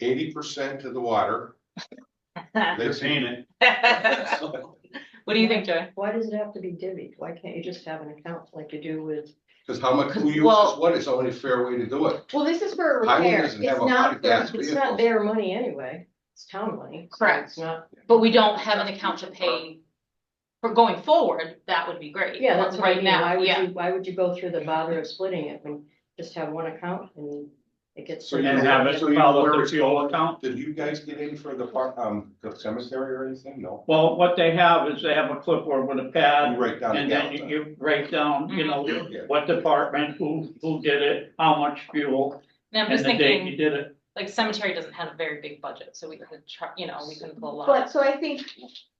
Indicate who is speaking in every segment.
Speaker 1: eighty percent to the water. They're paying it.
Speaker 2: What do you think, Joy?
Speaker 3: Why does it have to be divvied? Why can't you just have an account like you do with?
Speaker 1: Cause how much, who uses
Speaker 2: Well-
Speaker 1: what is the only fair way to do it?
Speaker 3: Well, this is for
Speaker 1: Highway
Speaker 3: repair. It's
Speaker 1: doesn't have a lot
Speaker 3: not,
Speaker 1: of gas
Speaker 3: for- it's not
Speaker 1: vehicles.
Speaker 3: their money anyway. It's town money. so
Speaker 2: Correct.
Speaker 3: It's not,
Speaker 2: But we don't have an account to pay. For going forward, that would be great.
Speaker 3: yeah, that's what I
Speaker 2: right
Speaker 3: mean.
Speaker 2: now.
Speaker 3: Why would
Speaker 2: yeah.
Speaker 3: you, why would you go through the bother of splitting it when just have one account and it gets.
Speaker 1: So you
Speaker 4: And have it
Speaker 1: so you
Speaker 4: follow
Speaker 1: where
Speaker 4: the
Speaker 1: it's
Speaker 4: fuel
Speaker 1: going?
Speaker 4: account.
Speaker 1: Did you guys get in for the park, um, the cemetery or anything? No.
Speaker 4: Well, what they have is they have a clipboard with a pad
Speaker 1: You write down the
Speaker 4: Uh, and then you-
Speaker 1: gallon.
Speaker 4: you write down, you know,
Speaker 2: Mm-hmm.
Speaker 1: ton. Yeah.
Speaker 4: what department, who, who did it, how much fuel,
Speaker 2: And I'm
Speaker 4: and
Speaker 2: just
Speaker 4: the date you
Speaker 2: thinking,
Speaker 4: did it.
Speaker 2: like cemetery doesn't have a very big budget, so we could try, you know, we can pull a lot.
Speaker 5: But, so I think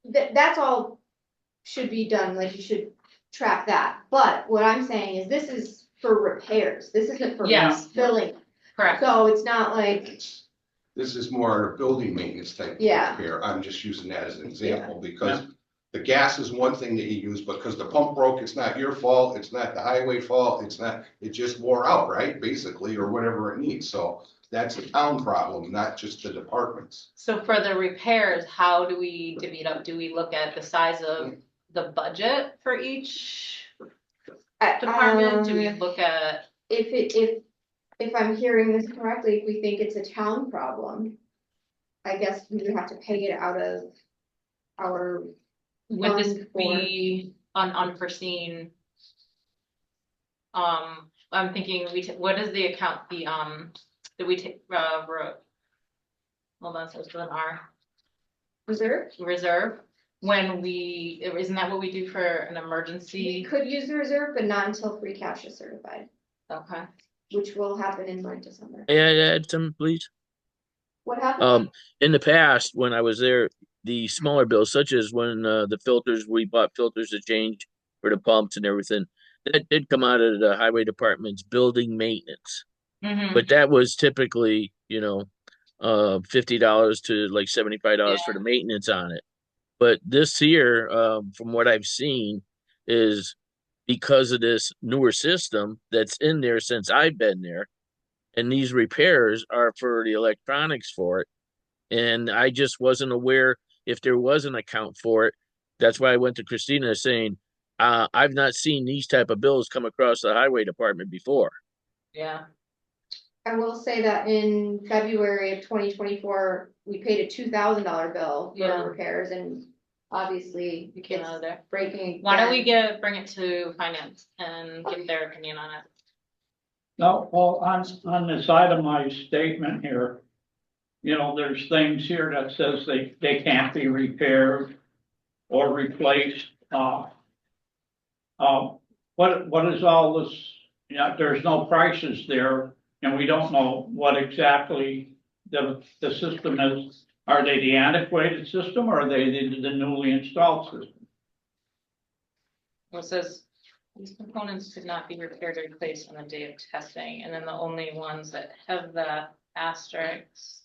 Speaker 5: that, that's all should be done, like you should track that, but what I'm saying is this is for repairs, this isn't for
Speaker 2: Yes.
Speaker 5: filling.
Speaker 2: Correct.
Speaker 5: So it's not like,
Speaker 1: This is more a building maintenance type of
Speaker 5: Yeah.
Speaker 1: repair. I'm just using that as an example because the gas is one thing that you use, but because the pump broke, it's not your fault, it's not the highway fault, it's not, it just wore out, right? Basically, or whatever it needs. So that's a town problem, not just the departments.
Speaker 2: So for the repairs, how do we divvy it up? Do we look at the size of the budget for each
Speaker 5: I-
Speaker 2: department? Do we
Speaker 5: um,
Speaker 2: look at,
Speaker 5: If it, if, if I'm hearing this correctly, if we think it's a town problem, I guess we would have to pay it out of our,
Speaker 2: would this
Speaker 5: Um,
Speaker 2: be an unforeseen? Um, I'm thinking, we, ta- what is the account, the, um, that we take, uh, wrote? Hold on, so it's with an R.
Speaker 5: reserve.
Speaker 2: reserve when we, isn't that what we do for an
Speaker 5: We
Speaker 2: emergency?
Speaker 5: could use the reserve, but not until free cash is certified,
Speaker 2: Okay.
Speaker 5: which will happen in like December.
Speaker 6: May I add some, please?
Speaker 5: What happened?
Speaker 6: Um, in the past, when I was there, the smaller bills, such as when uh, the filters, we bought filters to change for the pumps and everything, that did come out of the highway department's building maintenance.
Speaker 2: Mhm.
Speaker 6: But that was typically, you know, uh, fifty dollars to like seventy-five dollars for the maintenance on it. But this year, um, from what I've seen, is because of this newer system that's in there since I've been there. And these repairs are for the electronics for it. And I just wasn't aware if there was an account for it. That's why I went to Christina saying, uh, I've not seen these type of bills come across the highway department before.
Speaker 2: Yeah.
Speaker 5: I will say that in February of twenty twenty-four, we paid a two thousand dollar bill
Speaker 2: Yeah.
Speaker 5: for repairs and obviously
Speaker 2: We came out of
Speaker 5: it's
Speaker 2: there.
Speaker 5: breaking.
Speaker 2: Why don't we
Speaker 5: again.
Speaker 2: get, bring it to finance and get their opinion on it?
Speaker 4: Now, well, on, on this itemized statement here, you know, there's things here that says they, they can't be repaired or replaced, uh. uh, what, what is all this, you know, there's no prices there, and we don't know what exactly the, the system is. Are they the antiquated system, or are they the the newly installed system?
Speaker 2: It says, these components could not be repaired or replaced on the day of testing, and then the only ones that have the asterisks.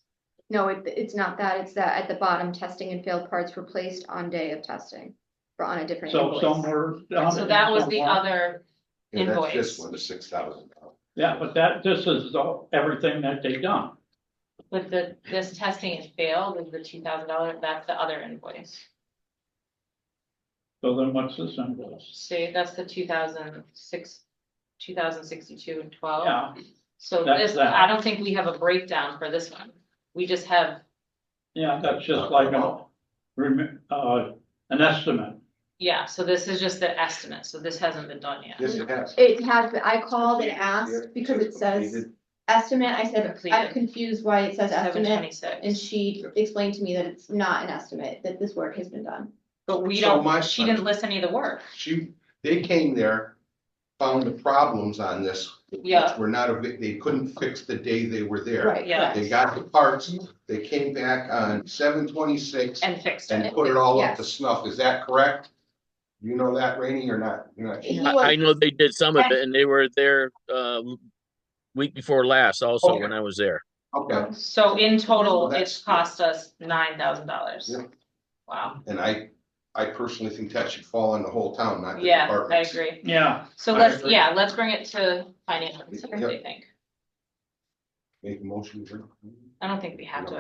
Speaker 5: No, it, it's not that. It's that at the bottom, testing and failed parts replaced on day of testing or on a different
Speaker 4: So
Speaker 5: invoice.
Speaker 4: somewhere. down
Speaker 2: So
Speaker 4: there
Speaker 2: that was the
Speaker 4: somewhere-
Speaker 2: other,
Speaker 1: Yeah, that's this
Speaker 2: Invoice.
Speaker 1: one, the six thousand.
Speaker 4: Yeah, but that, this is the- everything that they done.
Speaker 2: with the, this testing has failed, with the two thousand dollar, that's the other invoice.
Speaker 4: So then what's this invoice?
Speaker 2: See, that's the two thousand six, two thousand sixty-two and twelve.
Speaker 4: Yeah,
Speaker 2: So
Speaker 4: That's
Speaker 2: this,
Speaker 4: that.
Speaker 2: I don't think we have a breakdown for this one. We just have,
Speaker 4: yeah, that's just like a, rem- uh, an estimate.
Speaker 2: yeah, so this is just the estimate, so this hasn't been done yet.
Speaker 1: This has.
Speaker 5: It has, been- I called and asked because it says estimate. I said,
Speaker 2: Completed.
Speaker 5: I'm confused why it says
Speaker 2: Seven
Speaker 5: estimate. And
Speaker 2: twenty-six,
Speaker 5: she explained to me that it's not an estimate, that this work has been done.
Speaker 2: but we
Speaker 1: So my-
Speaker 2: don't, she didn't list any of the work.
Speaker 1: She, they came there, found the problems on this. which
Speaker 2: Yeah.
Speaker 1: Were not, a- they couldn't fix the day they were there.
Speaker 5: Right.
Speaker 2: Yeah.
Speaker 1: They got the parts, they came back on seven twenty-six
Speaker 2: And fixed
Speaker 1: and
Speaker 2: it.
Speaker 1: put it all up to
Speaker 5: Yes.
Speaker 1: snuff. Is that correct? You know that, Rainey, or not? You're not sure?
Speaker 5: He
Speaker 6: I,
Speaker 5: was-
Speaker 6: I know they did some of it and they were there, uh, week before last also when I was there.
Speaker 1: Okay,
Speaker 2: So in
Speaker 1: Well,
Speaker 2: total,
Speaker 1: that's-
Speaker 2: it's cost us nine thousand dollars.
Speaker 1: Yeah.
Speaker 2: Wow,
Speaker 1: and I, I personally think that should fall on the whole town, not the
Speaker 2: yeah, I
Speaker 1: departments.
Speaker 2: agree.
Speaker 4: Yeah,
Speaker 2: So
Speaker 1: I
Speaker 2: let's,
Speaker 1: agree.
Speaker 2: yeah, let's bring it to finance, and see what
Speaker 1: Yep.
Speaker 2: they think.
Speaker 1: Make a motion. Rainey.
Speaker 2: I don't think we have to,